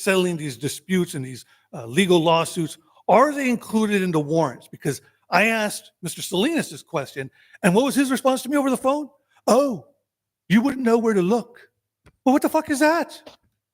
settling these disputes and these uh, legal lawsuits, are they included in the warrants? Because I asked Mr. Salinas this question, and what was his response to me over the phone? Oh, you wouldn't know where to look. Well, what the fuck is that?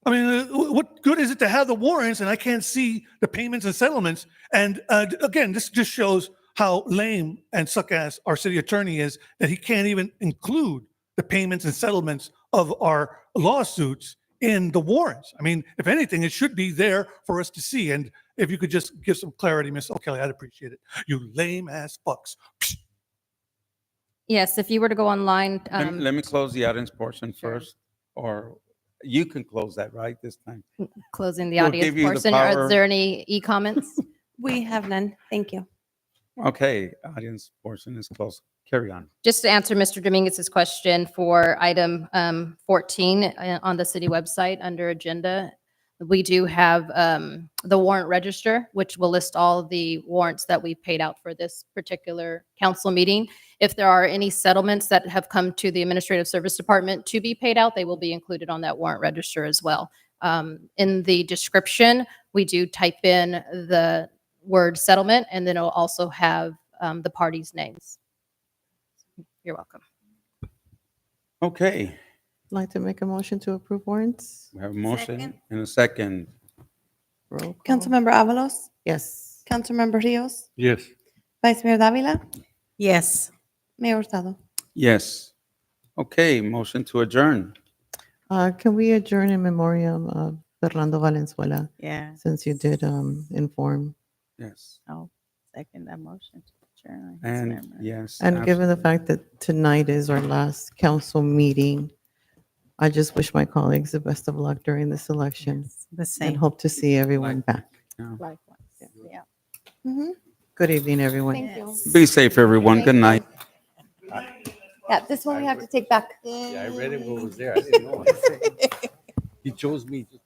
I mean, uh, wh- what good is it to have the warrants and I can't see the payments and settlements? And uh, d- again, this just shows how lame and suck ass our city attorney is that he can't even include the payments and settlements of our lawsuits in the warrants. I mean, if anything, it should be there for us to see. And if you could just give some clarity, Miss O'Kelly, I'd appreciate it. You lame ass fucks. Yes, if you were to go online, Lem- um, Let me close the audience portion sure. first, or you can close that, right, this time? closing the we'll audience give you the portion, are power. there any e-comments? We have none. Thank you. Okay, audience portion is closed. Carry on. Just to answer Mr. Dominguez's question for item um, 14 uh, on the city website under agenda, we do have um, the warrant register, which will list all the warrants that we paid out for this particular council meeting. If there are any settlements that have come to the Administrative Service Department to be paid out, they will be included on that warrant register as well. Um, In the description, we do type in the word settlement, and then it'll also have um, the parties' names. You're welcome. Okay, Like to make a motion to approve warrants? we have a motion Second. and a second. Roll call. Councilmember Avalos, Yes. Councilmember Rios, Yes. Vice Mayor Davila, Yes. Mayor Hurtado. Yes. Okay, motion to adjourn. Uh, Can we adjourn in memoriam of Fernando Valenzuela, Yeah. since you did um, inform? Yes. I'll second that motion. to adjourn his And memory. yes. And given the absolutely. fact that tonight is our last council meeting, I just wish my colleagues the best of luck during this election Yes, The and same. hope to see everyone back. Likewise. Yeah. Mhm. Good evening, everyone. Thank you. Be safe, everyone. Good night. Yeah, this one we have to take back. Yeah, I read it, what was there. I didn't know. it. He chose me.